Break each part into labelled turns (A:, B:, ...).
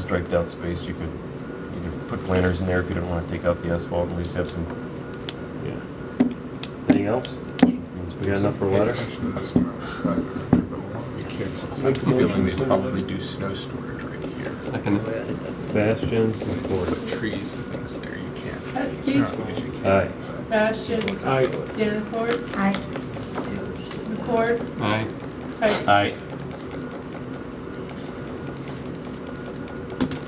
A: striped out space, you could either put planters in there if you don't want to take out the asphalt, at least have some.
B: Yeah. Anything else? We got enough for a letter?
C: I'm feeling they probably do snow storage right here.
B: Bastion, McCord.
C: Put trees and things there, you can't.
D: That's huge.
B: Aye.
D: Bastion.
E: Aye.
D: Danforth.
F: Aye.
D: McCord.
E: Aye.
D: Tyson.
A: Aye.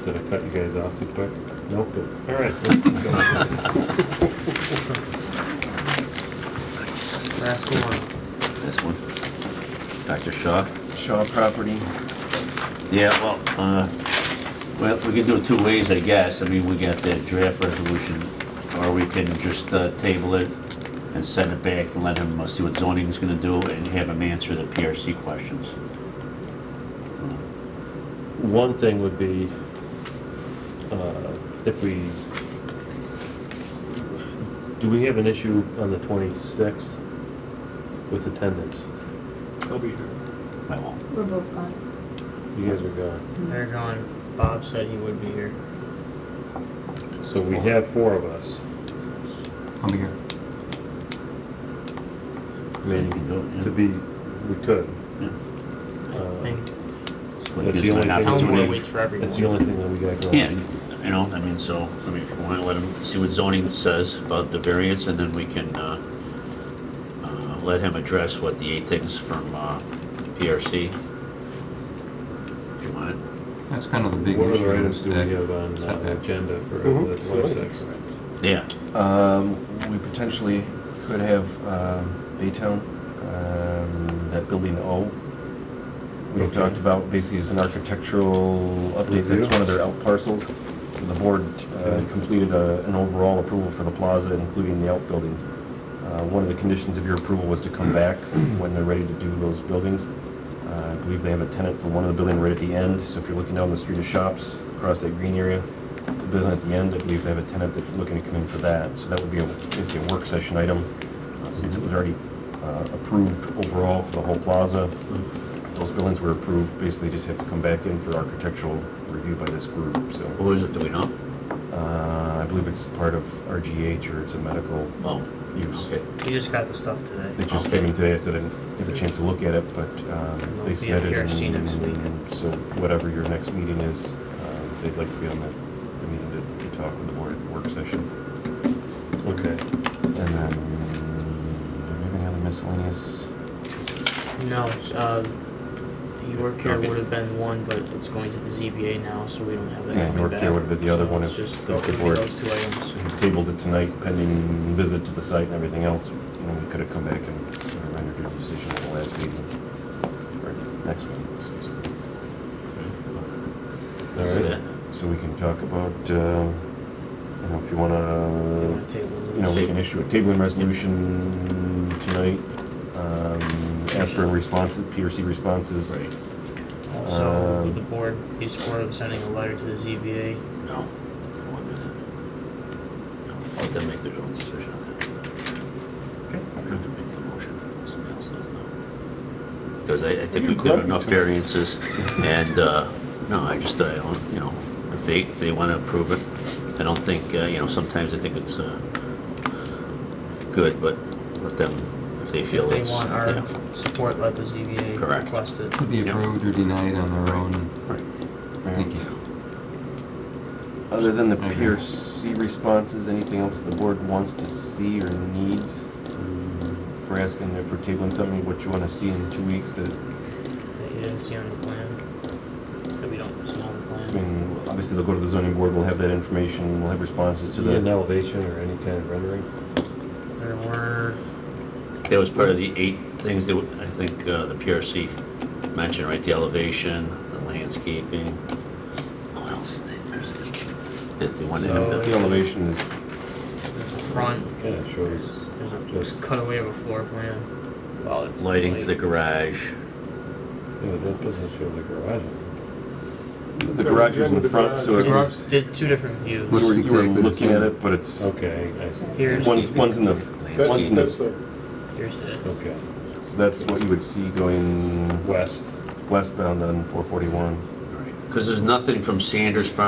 B: Did I cut you guys off too quick? Nope. All right. let's keep going.
E: Last one.
G: This one. Dr. Shaw?
A: Shaw property.
G: Yeah, well, uh, well, we can do it two ways, I guess. I mean, we got the draft resolution, or we can just uh, table it and send it back and let him uh, see what zoning's gonna do and have him answer the PRC questions.
B: One thing would be, uh, if we, do we have an issue on the 26th with attendance?
E: I'll be here.
G: I won't.
F: We're both gone.
B: You guys are gone.
H: They're going, Bob said he would be here.
B: So we have four of us.
E: I'll be here.
B: I
G: You can do it,
B: mean,
G: yeah.
B: to be, we could.
G: Yeah.
B: Uh,
H: I think
G: It's like
B: That's
G: gives
B: the
G: him an
B: only thing-
G: opportunity.
H: Town
B: doing-
H: Board waits for everyone.
B: That's the only thing that we got going.
G: Yeah, you know, I mean, so, I mean, if you want to let him see what zoning says about the variance, and then we can, uh, uh, let him address what the eight things from, uh, PRC. If you want.
E: That's kind of the big issue.
B: What other items do we
E: that-
B: have on uh,
E: setback.
B: agenda for
C: Mhm.
B: the 26th?
G: Yeah,
A: Um, we potentially could have, um, Baytown, um, that building O. We
B: Okay.
A: talked about basically as an architectural update,
B: Review.
A: that's one of their out parcels. So the board, uh,
B: Okay.
A: completed a, an overall approval for the plaza, including the outbuildings. Uh, one of the conditions of your approval was to come back when they're ready to do those buildings. Uh, I believe they have a tenant for one of the building right at the end, so if you're looking down the street of shops, across that green area, the building at the end, I believe they have a tenant that's looking to come in for that, so that would be a, basically a work session item. Uh, Since it was already uh, approved overall for the whole plaza, those buildings were approved, basically just have to come back in for architectural review by this group, so.
G: what is it, do we know?
A: Uh, I believe it's part of RGH or it's a medical
G: Oh,
A: use.
G: okay.
H: We just got the stuff
A: They
H: today.
A: just came in today, so I didn't have a chance to look at it, but um,
H: They'll be
A: they
H: at
A: submitted.
H: PRC next
A: and-
H: week.
A: So whatever your next meeting is, uh, they'd like to be on the, the meeting to, to talk with the board at the work session.
B: Okay.
A: And then, do we have any other miscellaneous?
H: No, um, uh, you work here would have been one, but it's going to the ZBA now, so we don't have that
A: Yeah,
H: coming
A: York here
H: back.
A: would've been the other
H: So
A: one
H: it's
A: if-
H: just
A: if
H: those-
A: the board-
H: Those two items.
A: We Tabled it tonight pending visit to the site and everything else, you know, we could have come back and sort of rendered a decision at the last meeting, or next meeting, excuse me.
B: All
G: So
B: right.
G: that-
A: So we can talk about, uh, you know, if you
H: You
A: wanna,
H: wanna table
A: Uh, you know,
H: those?
A: we can issue a tabling resolution tonight, um, ask for responses, PRC responses.
G: Right,
H: Also,
A: um,
H: would the board be supportive of sending a letter to the ZBA?
G: no, I won't do that. No, Let them make their own decision on that. I have to make the motion, somebody else doesn't know. Because I, I think we've got enough variances, and, uh, no, I just, I don't, you know, if they, if they want to approve it, I don't think, uh, you know, sometimes I think it's, uh, good, but let them, if they feel
H: If
G: it's,
H: they want our
G: yeah,
H: support, let the ZBA
G: Correct.
H: request it.
E: Could be
G: Yep.
E: approved or denied on their own.
A: Alright.
E: Thank
A: Other than the
E: Okay.
A: PRC responses, anything else the board wants to see or needs? If we're asking, if we're tabling something, what you wanna see in two weeks that,
H: that you didn't see on the plan, that we don't see on the
A: I
H: plan.
A: mean, obviously they'll go to the zoning board, we'll have that information, we'll have responses to
B: Need an
A: the.
B: elevation or any kind of rendering?
H: There were,
G: that was part of the eight things that w- I think, uh, the PRC mentioned, right, the elevation, the landscaping. What else did they, there's, that they wanted him
H: So-
G: to.
A: The elevation is
H: there's a front,
B: Yeah, it shows
H: there's a
B: just,
H: cutaway of a floor plan. Well, it's
G: Lighting for the garage.
B: yeah, that doesn't show the garage.
A: The garage was in the front, so it
H: It
A: was,
H: was, did two different
A: you
H: views.
A: were, you were
E: Exactly the
A: looking at
E: same.
A: it, but it's,
B: Okay, I see.
H: Here's,
A: one's, one's in the, one's in the, so
H: here's it.
B: Okay,
A: that's what you would see going
B: west.
A: westbound on four forty-one.
G: Right. Because there's nothing from Sanders Farm